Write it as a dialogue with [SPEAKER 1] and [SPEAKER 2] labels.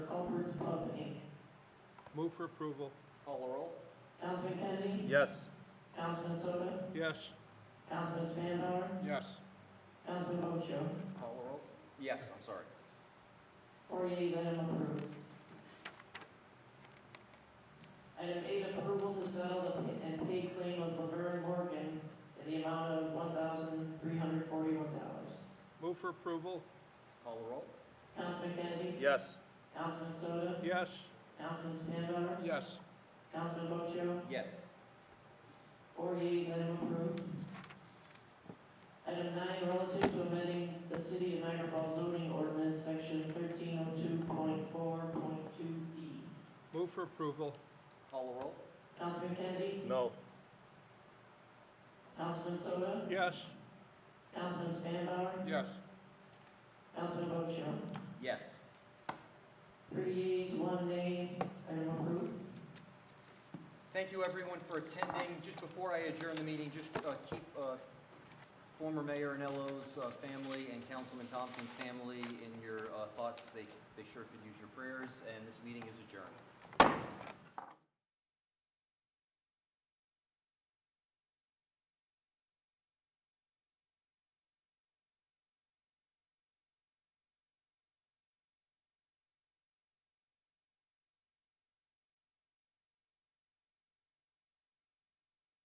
[SPEAKER 1] Move for approval.
[SPEAKER 2] Call the roll.
[SPEAKER 3] Councilman Kennedy?
[SPEAKER 4] Yes.
[SPEAKER 3] Councilman Soto?
[SPEAKER 1] Yes.
[SPEAKER 3] Councilman Spanbauer?
[SPEAKER 5] yes,
[SPEAKER 3] Councilman Ocho?
[SPEAKER 2] Call the roll. Yes, I'm sorry.
[SPEAKER 3] Four yeas, item approved. Item eight, approval to settle the pa- and pay claim of Laverne Morgan in the amount of one thousand three hundred forty-one dollars.
[SPEAKER 1] Move for approval.
[SPEAKER 2] Call the roll.
[SPEAKER 3] Councilman Kennedy?
[SPEAKER 4] Yes.
[SPEAKER 3] Councilman Soto?
[SPEAKER 1] Yes.
[SPEAKER 3] Councilman Spanbauer?
[SPEAKER 5] yes,
[SPEAKER 3] Councilman Ocho?
[SPEAKER 2] Yes.
[SPEAKER 3] Four yeas, item approved. Item nine, relative to amending the city of Niagara Falls zoning ordinance, section thirteen oh two point four point two E.
[SPEAKER 1] Move for approval.
[SPEAKER 2] Call the roll.
[SPEAKER 3] Councilman Kennedy?
[SPEAKER 4] No.
[SPEAKER 3] Councilman Soto?
[SPEAKER 1] Yes.
[SPEAKER 3] Councilman Spanbauer?
[SPEAKER 5] yes,
[SPEAKER 3] Councilman Ocho?
[SPEAKER 2] Yes.
[SPEAKER 3] Three yeas, one nay, item approved.
[SPEAKER 2] Thank you, everyone, for attending. Just before I adjourn the meeting, just uh, keep uh, former Mayor Anello's uh, family and Councilman Tompkins' family in your uh, thoughts. They they sure could use your prayers, and this meeting is adjourned.